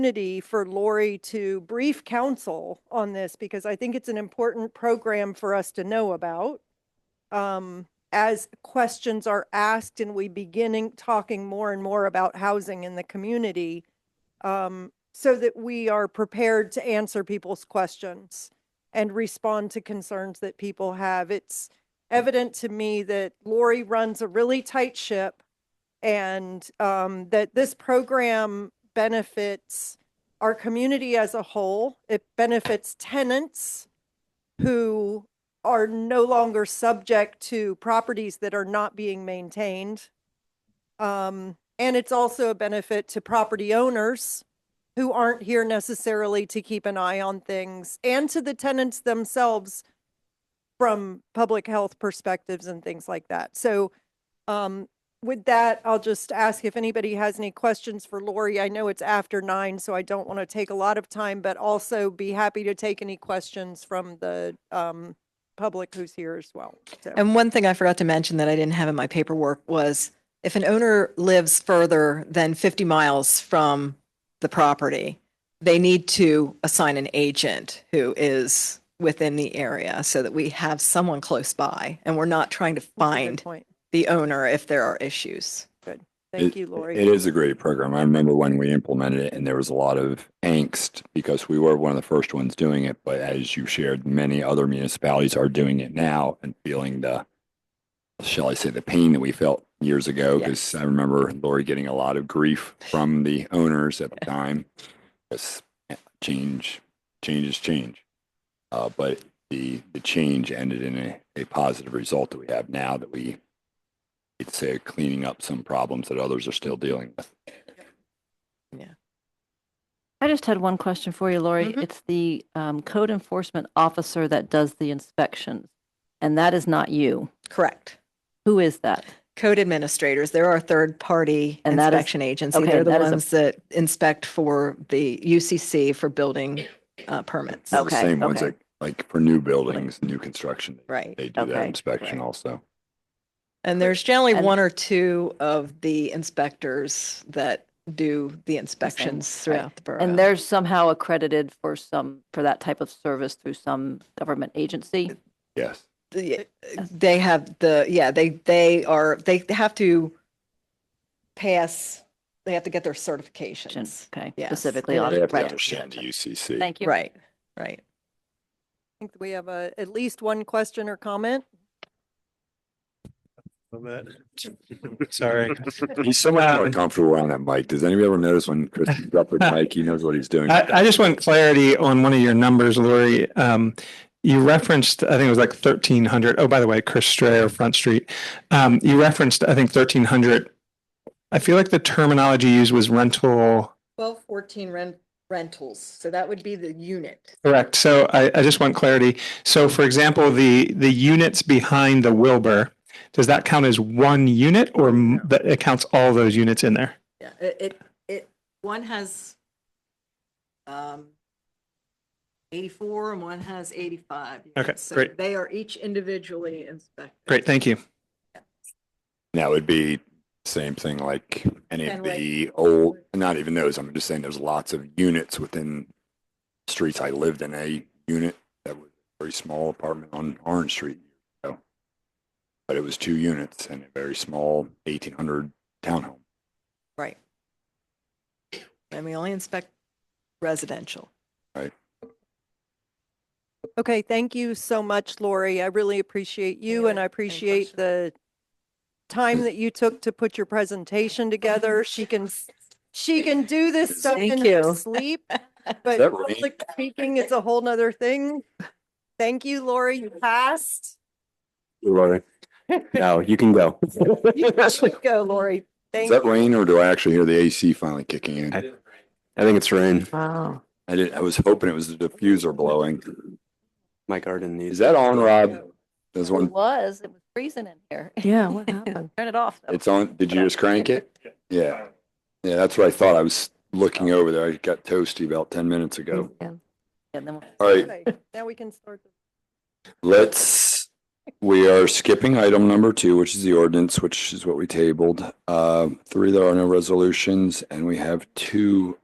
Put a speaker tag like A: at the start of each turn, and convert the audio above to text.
A: opportunity for Lori to brief council on this because I think it's an important program for us to know about. Um, as questions are asked and we beginning talking more and more about housing in the community, um, so that we are prepared to answer people's questions and respond to concerns that people have. It's evident to me that Lori runs a really tight ship and um, that this program benefits our community as a whole. It benefits tenants who are no longer subject to properties that are not being maintained. Um, and it's also a benefit to property owners who aren't here necessarily to keep an eye on things and to the tenants themselves from public health perspectives and things like that. So, um, with that, I'll just ask if anybody has any questions for Lori. I know it's after nine, so I don't want to take a lot of time, but also be happy to take any questions from the um, public who's here as well. So,
B: And one thing I forgot to mention that I didn't have in my paperwork was if an owner lives further than 50 miles from the property, they need to assign an agent who is within the area so that we have someone close by and we're not trying to
A: that's a good
B: find
A: Point.
B: the owner if there are issues.
A: Thank you, Lori.
C: It is a great program. I remember when we implemented it and there was a lot of angst because we were one of the first ones doing it. But as you shared, many other municipalities are doing it now and feeling the, shall I say, the pain that we felt years ago. Because I remember Lori getting a lot of grief from the owners at the time. Because change, change is change. Uh, but the, the change ended in a, a positive result that we have now that we it's uh, cleaning up some problems that others are still dealing with.
D: I just had one question for you, Lori.
B: Mm-hmm.
A: Mhm.
D: It's the um, code enforcement officer that does the inspections, and that is not you.
B: Correct.
D: Who is that?
B: Code administrators, there are third party
D: And that is-
B: inspection agency.
D: okay,
B: They're the
D: that is a-
B: ones that inspect for the UCC for building uh, permits.
C: They're
D: Okay,
C: the same ones
D: okay.
C: that, like for new buildings, new construction,
B: Right.
C: they do that
D: Okay,
C: inspection
D: right.
C: also.
B: And there's generally
D: And-
B: one or two of the inspectors that do the inspections
D: right.
B: throughout the borough.
D: And they're somehow accredited for some, for that type of service through some government agency?
C: Yes.
B: The-
D: uh,
B: They have the, yeah, they, they are, they have to pass, they have to get their certifications.
D: Okay,
B: Yes.
D: specifically
B: They
D: on.
C: They have to
D: right.
C: understand the UCC.
D: Thank you.
B: Right, right.
A: I think we have a, at least one question or comment.
E: on that. Sorry.
C: He's so much more
E: Um,
C: comfortable on that mic. Does anybody ever notice when Chris is up with Mike, he knows what he's doing?
E: I, I just want clarity on one of your numbers, Lori. Um, you referenced, I think it was like thirteen hundred. Oh, by the way, Chris Strayer, Front Street. Um, you referenced, I think thirteen hundred. I feel like the terminology used was rental.
B: Twelve, fourteen rent, rentals. So that would be the unit.
E: Correct. So I, I just want clarity. So for example, the, the units behind the Wilbur, does that count as one unit or m- that it counts all those units in there?
B: Yeah, it, it, it, one has um, eighty-four and one has eighty-five.
E: Okay,
B: units. So
E: great.
B: They are each individually inspected.
E: Great, thank you.
C: That would be same thing like any of
B: Kinda like-
C: the old, not even those. I'm just saying there's lots of units within streets. I lived in a unit that was a very small apartment on Orange Street. so. But it was two units and a very small eighteen hundred townhome.
B: Right. And we only inspect residential.
A: Okay, thank you so much, Lori. I really appreciate you and I
B: Any
A: appreciate
B: questions?
A: the time that you took to put your presentation together. She can, s- she can do this stuff in
B: Thank
A: her
B: you.
A: sleep. But
C: that right?
A: public speaking is a whole nother thing. Thank you, Lori. You passed.
C: No, you can go. Is
A: Go, Lori. Thank
C: that
A: you.
C: rain or do I actually hear the AC finally kicking in?
F: I- I think it's rain.
B: Wow.
C: I did, I was hoping it was the diffuser blowing.
F: My garden needs.
C: Is that on, Rob? There's
D: It
C: one,
D: was, it was freezing in here.
B: Yeah, what happened?
D: Turn it off. though.
C: it's on. Did you just crank it? Yeah. Yeah, that's what I thought. I was looking over there. I got toasty about ten minutes ago.
D: And then we'll-
C: All right,
A: Okay, Now we can start. the-
C: let's, we are skipping item number two, which is the ordinance, which is what we tabled. Uh, three, there are no resolutions, and we have two